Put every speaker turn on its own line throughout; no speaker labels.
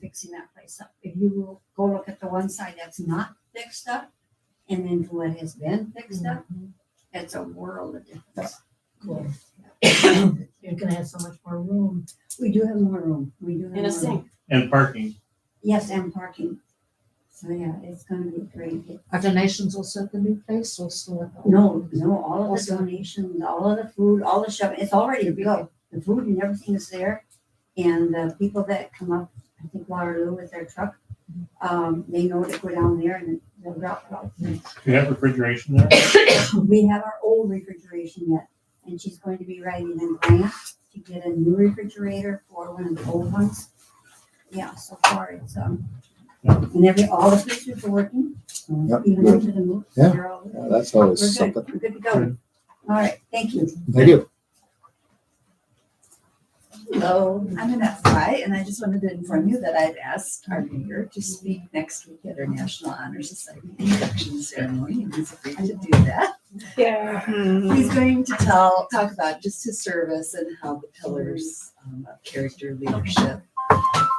fixing that place up. If you will go look at the one side that's not fixed up and then to what has been fixed up, it's a world of difference.
Cool. You're gonna have so much more room.
We do have more room. We do have more
And a
room.
sink.
and parking.
Yes, and parking. So yeah, it's gonna be great.
Are donations also at the new place also? at the-
No, no, all of the
Awesome.
donations, all of the food, all the shopping, it's all ready to go. The food and everything is there. And the people that come up, I think Waterloo with their truck, um, they know to go down there and they'll drop it off.
Do you have refrigeration there?
We have our old refrigeration yet, and she's going to be writing a grant to get a new refrigerator for one of the old ones. Yeah, so far it's, um, and every, all the pieces are working, um,
Yep,
even
good.
into the move.
Yeah.
They're all-
Yeah, That's
We're
always
good,
something.
we're good to go. All right, thank you.
Thank you.
Hello, I'm Annette Fry, and I just wanted to inform you that I've asked our mayor to speak next week at our National Honor Society induction ceremony, and he's agreed to do that. He's going to tell, talk about just his service and how the pillars um, of character, leadership,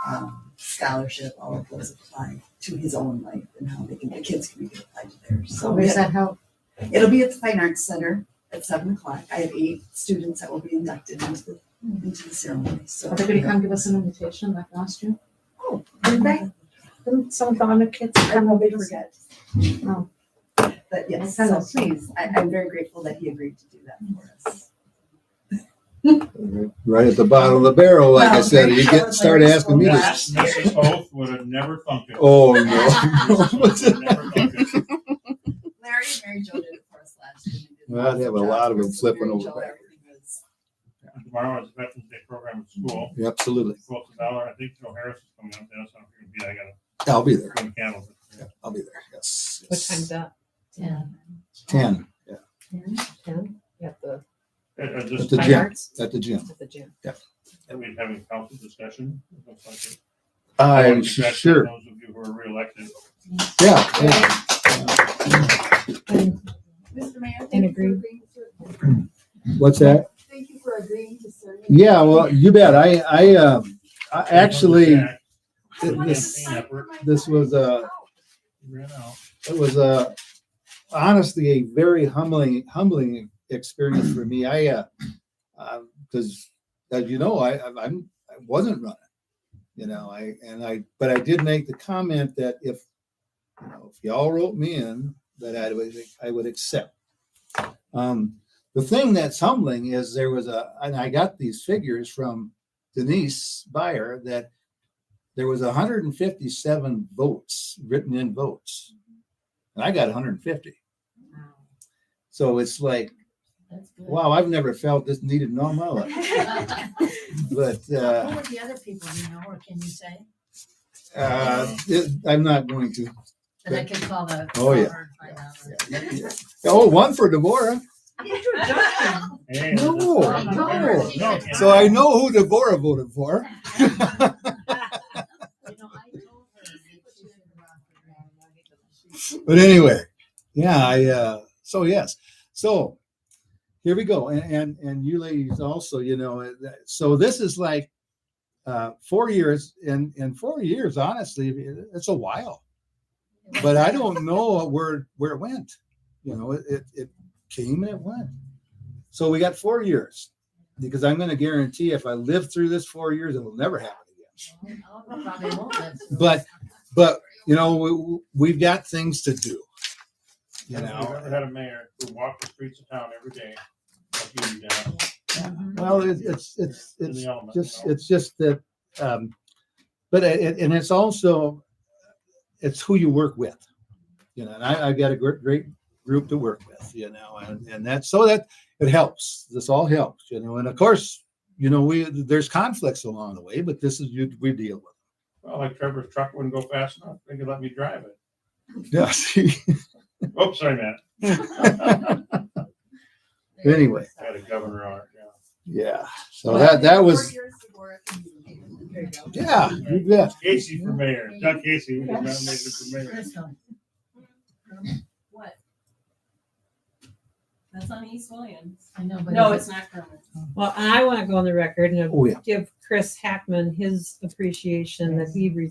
um, scholarship, all of those apply to his own life and how they can, the kids can be applied to theirs.
So where's that help?
It'll be at the Fine Arts Center at seven o'clock. I have eight students that will be inducted into the, into the ceremony, so.
Are they gonna come give us an invitation like last year?
Oh,
Did they? Didn't some of the honor kids
I
come
will
over?
be forget.
Oh.
But yes,
Kind
so
of.
please, I, I'm very grateful that he agreed to do that for us.
Right at the bottom of the barrel, like I said, you get, start asking me to.
Last year.
Mrs. Oath would have never thunk it.
Oh,
Mrs.
no.
Oath would have never thunk it.
Larry and Mary Jo did it for us last year. They did an
Well, I'd have a
awesome
lot of
job for
them
us.
flipping
Mary
over
Jo,
back.
everything was-
Tomorrow is Veterans Day program at school.
Absolutely.
Quote a dollar. I think Joe Harris is coming up there, so I'm gonna be, I gotta
I'll be there.
bring candles.
Yeah, I'll be there. Yes.
What time's that?
Yeah.
Ten
Ten?
At the
At, at
At
this
the
time,
gym.
arts?
at the gym.
At the gym.
that we're having council discussion. It looks like it. I
I'm
want to congratulate
sure.
Those of you who are reelected.
Yeah. yeah.
Mr. Mayor, thank you for
agree.
agreeing to,
What's that?
thank you for agreeing to serve.
Yeah, well, you bet. I, I, um, I actually,
Jack
th-
wanted to
this,
sign effort.
this was uh, a,
ran out.
it was a honestly a very humbling humbling experience for me. I uh, because as you know, I I- I'm I wasn't running, you know. I and I but I did make the comment that if you know if y'all wrote me in, that I would I would accept. Um, the thing that's humbling is there was a and I got these figures from Denise Byer that there was 157 votes written in votes and I got 150. So it's like,
That's good.
wow, I've never felt this needed in all my life. But
Who
uh,
were the other people you know, or can you say?
uh, it- I'm not going to.
That I can call the.
Oh, yeah.
or find out.
Oh, one for Deborah.
Hey,
No,
that's-
no.
No, can't.
So I know who Deborah voted for.
You know, I told her that she should run for mayor, and I get the-
but anyway, yeah, I uh so yes. So here we go. And and, and you ladies also, you know, uh, that- so this is like uh four years and and four years, honestly, it- it's a while. But I don't know where where it went. You know, it it, it came and it went. So we got four years because I'm gonna guarantee if I live through this four years, it'll never happen again
Oh, no, probably won't let you.
but but you know we, we've got things to do you
We've
know
never had a mayor who walked the streets of town every day. like you do now,
well it, it's it's
in
it's
the element, you
just
know.
it's just that um but it, it- and it's also it's who you work with you know and I, i've got a great, great group to work with you know and, and that's so that it helps this all helps you know and of course you know we there's conflicts along the way but this is you we deal with
Well, like Trevor's truck wouldn't go fast enough. They could let me drive it.
yeah see?
Oops, sorry, Matt. I
anyway
Had a governor on it,
yeah so that that was
There you go.
yeah you bet
yeah. Casey for mayor, Doug Casey, we nominated for mayor.
Let's go.
What? That's on East Williams.
I know, but.
No,
is
it's not Kermit.
Well, I want to go on the record and
Oh, yeah.
give Chris Hackman his appreciation that he